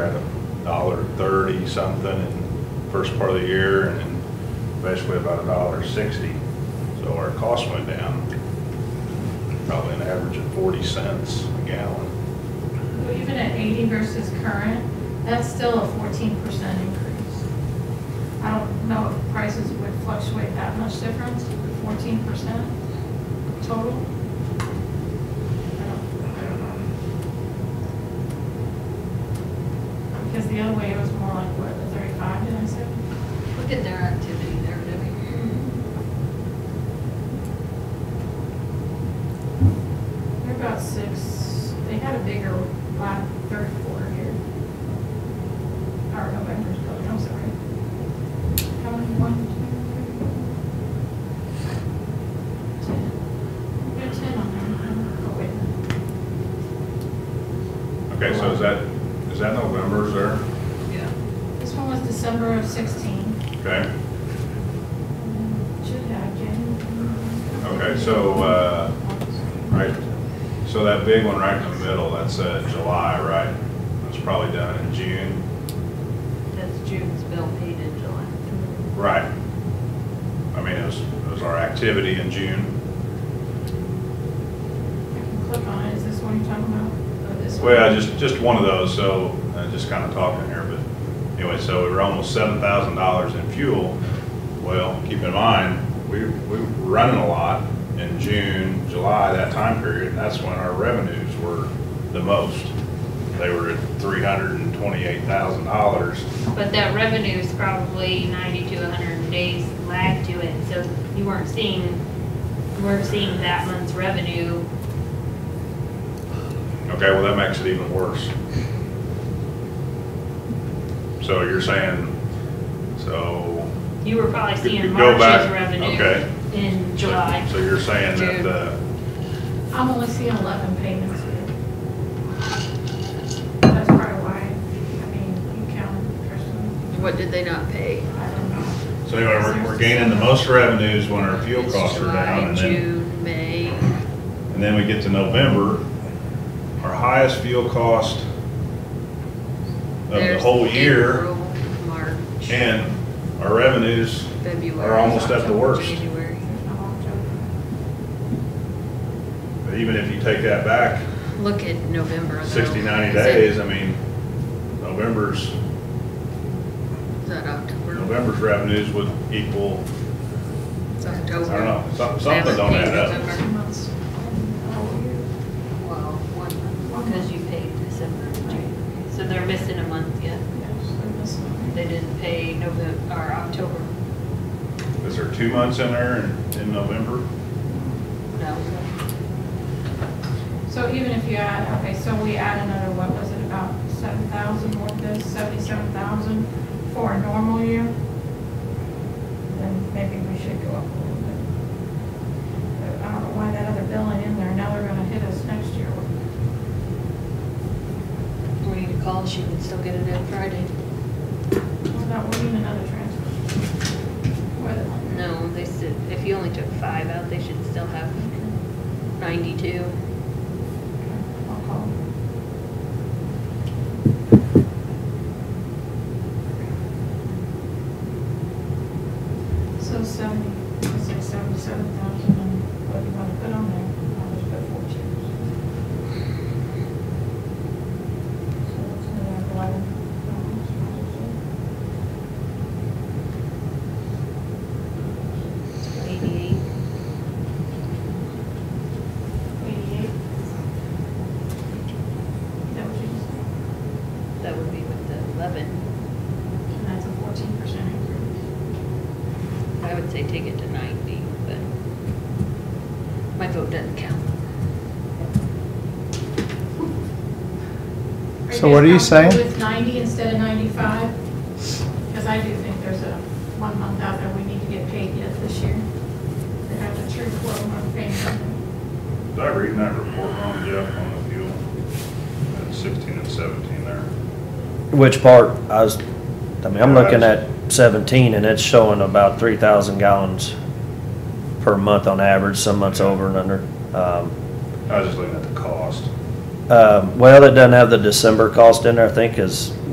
at a dollar thirty something in first part of the year, and then basically about a dollar sixty. So our cost went down, probably an average of forty cents a gallon. Well, Even at 80 versus current, that's still a 14% increase. I don't know if prices would fluctuate that much difference, 14% total. I don't- I don't know. Because the other way, it was more like, what, the 35, did I say? Look at their activity there, Debbie. They're about six, they had a bigger last third quarter here. Or November's building, I'm sorry. How many, one, two, three? Ten. We got ten on Okay, there. Oh, wait. so is that, is that November's there? Yeah. This one was December of sixteen. Okay, Mm, Should have, January. okay, so, uh, right, so that big one right in the middle, that's, uh, July, right? That's probably done in June. That's June's bill paid in July. Right. I mean, it was, it was our activity in June. I can click on it, is this one you're talking about? Or this one? Well, just, just one of those, so, uh, just kind of talking here, but anyway, so we were almost seven thousand dollars in fuel. Well, keep in mind, we, we were running a lot in June, July, that time period, and that's when our revenues were the most. They were at three hundred and twenty-eight thousand dollars. But that revenue is probably ninety to hundred days lag to it, so you weren't seeing, you weren't seeing that month's revenue. Okay, well, that makes it even worse. So you're saying, so You were probably Could you seeing go March's back? revenue Okay. in So- July. So you're saying that June. the, I'm only seeing eleven payments here. That's probably why, I mean, you count Christmas, What did they not pay? I don't know. so anyway, we're, we're gaining the most revenues when our fuel It's costs are down. And July, then, June, May. and then we get to November, our highest fuel cost of the There's whole year, April, March. and our revenues February. are almost at the October, worst. January. There's no October. But even if you take that back Look at November. though. 60, 90 Is it- days, I mean, November's, Is that October? November's revenues would equal, It's I October. don't know, some- They something haven't don't paid add up. November. Two months. Well, one month, because you paid December, and January. so they're missing a month yet. They didn't pay November, or October, Is there two months in there in, in November? no. So even if you add, okay, so we add another, what was it, about seven thousand, what this, seventy-seven thousand for a normal year? Then maybe we should go up a little bit. But I don't know why that other billing in there, now they're gonna hit us next year with We need to call, she can still get it in Friday. What about winning another transfer? Whether- No, they said, if you only took five out, they should still have ninety-two. I'll call them. So seventy, let's say seventy-seven thousand, and what you wanna put on there, I'll just put four chairs. So it's gonna have eleven. Eighty-eight. Eighty-eight. Is that what you just said? That would be with the eleven. And that's a fourteen percent increase. I would say take it to ninety, but my vote doesn't count. So what are you guys comfortable saying? With ninety instead of ninety-five? Because I do think there's a one month out there we need to get paid yet this year. They have the true quote on paying something. Did I read that report wrong, Jeff, on the fuel? At sixteen and seventeen there. Which part, I was, I mean, I'm looking at seventeen and it's showing about three thousand gallons per month on average, some months over and under. Um, I was just looking at the cost. um, well, it doesn't have the December cost in there, I think, is